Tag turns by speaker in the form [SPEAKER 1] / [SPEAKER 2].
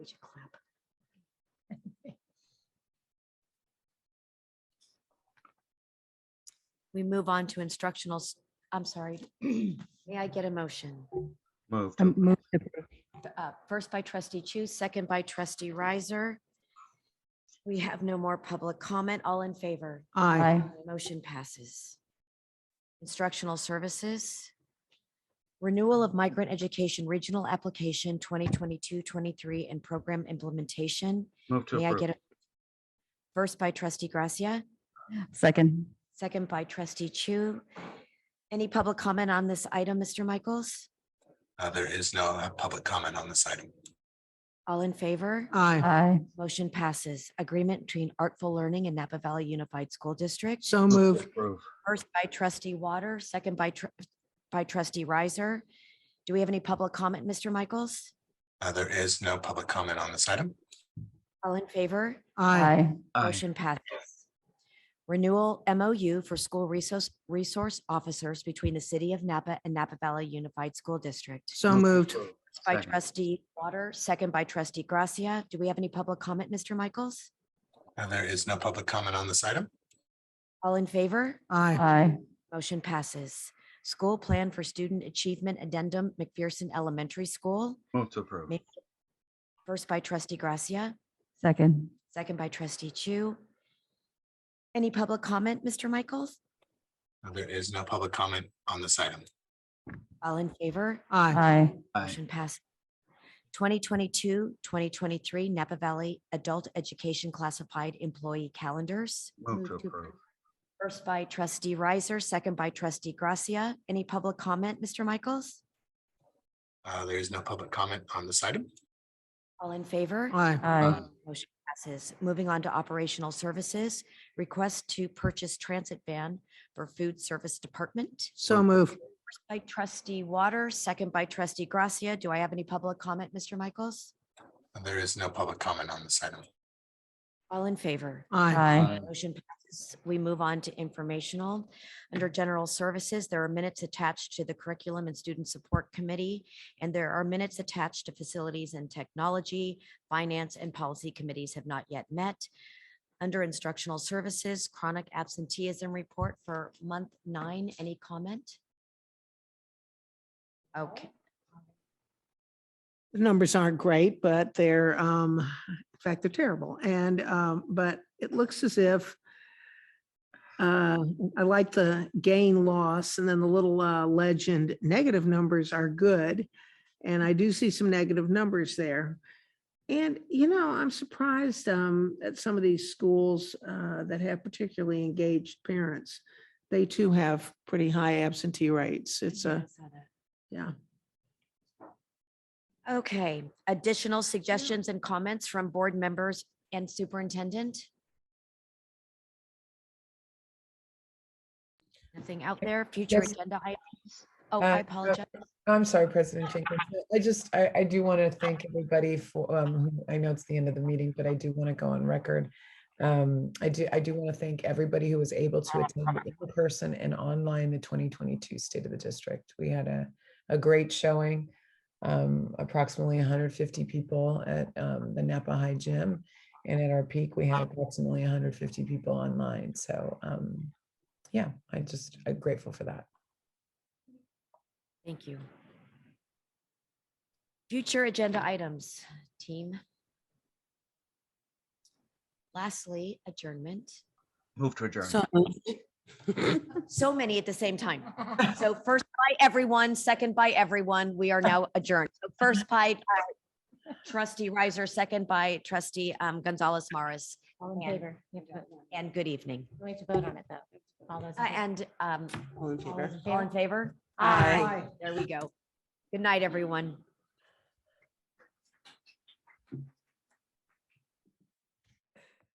[SPEAKER 1] We should clap. We move on to instructionals. I'm sorry. May I get a motion?
[SPEAKER 2] Moved.
[SPEAKER 3] Um, move to approve.
[SPEAKER 1] Uh, First by trustee Chu, second by trustee Riser. We have no more public comment. All in favor?
[SPEAKER 4] Aye.
[SPEAKER 1] Motion passes. Instructional services. Renewal of migrant education regional application 2022-23 and program implementation.
[SPEAKER 2] Move to
[SPEAKER 1] May I get
[SPEAKER 2] approve.
[SPEAKER 1] a first by trustee Gracia,
[SPEAKER 3] Second.
[SPEAKER 1] second by trustee Chu. Any public comment on this item, Mr. Michaels?
[SPEAKER 5] Uh, There is no uh, public comment on this item.
[SPEAKER 1] All in favor?
[SPEAKER 4] Aye.
[SPEAKER 3] Aye.
[SPEAKER 1] Motion passes. Agreement between Artful Learning and Napa Valley Unified School District.
[SPEAKER 4] So moved.
[SPEAKER 2] Approve.
[SPEAKER 1] First by trustee Water, second by, tr- by trustee Riser. Do we have any public comment, Mr. Michaels?
[SPEAKER 5] Uh, There is no public comment on this item.
[SPEAKER 1] All in favor?
[SPEAKER 4] Aye.
[SPEAKER 3] Aye.
[SPEAKER 2] Aye.
[SPEAKER 1] Motion passes. Renewal MOU for school resource, resource officers between the city of Napa and Napa Valley Unified School District.
[SPEAKER 4] So moved.
[SPEAKER 1] First By
[SPEAKER 2] Second.
[SPEAKER 1] trustee Water, second by trustee Gracia. Do we have any public comment, Mr. Michaels?
[SPEAKER 5] Uh, There is no public comment on this item.
[SPEAKER 1] All in favor?
[SPEAKER 4] Aye.
[SPEAKER 3] Aye.
[SPEAKER 1] Motion passes. School Plan for Student Achievement Addendum McPherson Elementary School,
[SPEAKER 2] Move to approve.
[SPEAKER 1] May- first by trustee Gracia,
[SPEAKER 3] Second.
[SPEAKER 1] second by trustee Chu. Any public comment, Mr. Michaels?
[SPEAKER 5] Uh, There is no public comment on this item.
[SPEAKER 1] All in favor?
[SPEAKER 4] Aye.
[SPEAKER 3] Aye.
[SPEAKER 2] Aye.
[SPEAKER 1] Motion passed. 2022, 2023 Napa Valley Adult Education Classified Employee Calendars,
[SPEAKER 2] Move to approve.
[SPEAKER 1] first by trustee Riser, second by trustee Gracia. Any public comment, Mr. Michaels?
[SPEAKER 5] Uh, There is no public comment on this item. Uh,
[SPEAKER 1] All in favor?
[SPEAKER 4] Aye.
[SPEAKER 3] Aye.
[SPEAKER 1] Motion passes. Moving on to operational services, request to purchase transit van for food service department.
[SPEAKER 4] So moved.
[SPEAKER 1] First By trustee Water, second by trustee Gracia. Do I have any public comment, Mr. Michaels?
[SPEAKER 5] Uh, There is no public comment on this item.
[SPEAKER 1] All in favor?
[SPEAKER 4] Aye.
[SPEAKER 3] Aye.
[SPEAKER 1] Motion passes. We move on to informational. Under general services, there are minutes attached to the curriculum and student support committee, and there are minutes attached to facilities and technology. Finance and policy committees have not yet met. Under instructional services, chronic absenteeism report for month nine. Any comment? Okay,
[SPEAKER 4] The numbers aren't great, but they're, um, in fact, they're terrible. And, um, but it looks as if uh, I like the gain loss and then the little, uh, legend, negative numbers are good. And I do see some negative numbers there. And, you know, I'm surprised, um, at some of these schools, uh, that have particularly engaged parents. They too have pretty high absentee rates. It's a, yeah.
[SPEAKER 1] okay. Additional suggestions and comments from board members and superintendent? Nothing out there. Future
[SPEAKER 6] Yes.
[SPEAKER 1] agenda items. Oh, I
[SPEAKER 6] Uh,
[SPEAKER 1] apologize.
[SPEAKER 6] I'm sorry, President Jenkins. I just, I, I do want to thank everybody for, um, I know it's the end of the meeting, but I do want to go on record. Um, I do, I do want to thank everybody who was able to attend in person and online the 2022 State of the District. We had a, a great showing. Um, approximately 150 people at, um, the Napa High Gym. And at our peak, we had approximately 150 people online. So, um, yeah, I just, I'm grateful for that.
[SPEAKER 1] Thank you. Future agenda items, team. Lastly, adjournment.
[SPEAKER 2] Move to adjourn.
[SPEAKER 4] So moved.
[SPEAKER 1] So many at the same time. So first by everyone, second by everyone, we are now adjourned. So First by uh, trustee Riser, second by trustee um, Gonzalez Morris,
[SPEAKER 7] All in
[SPEAKER 1] And-
[SPEAKER 7] favor? You have to vote now.
[SPEAKER 1] and good evening.
[SPEAKER 7] We have to vote on it, though. All those. in
[SPEAKER 1] Uh,
[SPEAKER 7] favor?
[SPEAKER 1] And um,
[SPEAKER 7] All those in
[SPEAKER 1] all in
[SPEAKER 7] favor?
[SPEAKER 1] favor?
[SPEAKER 7] Aye.
[SPEAKER 1] There we go. Good night, everyone.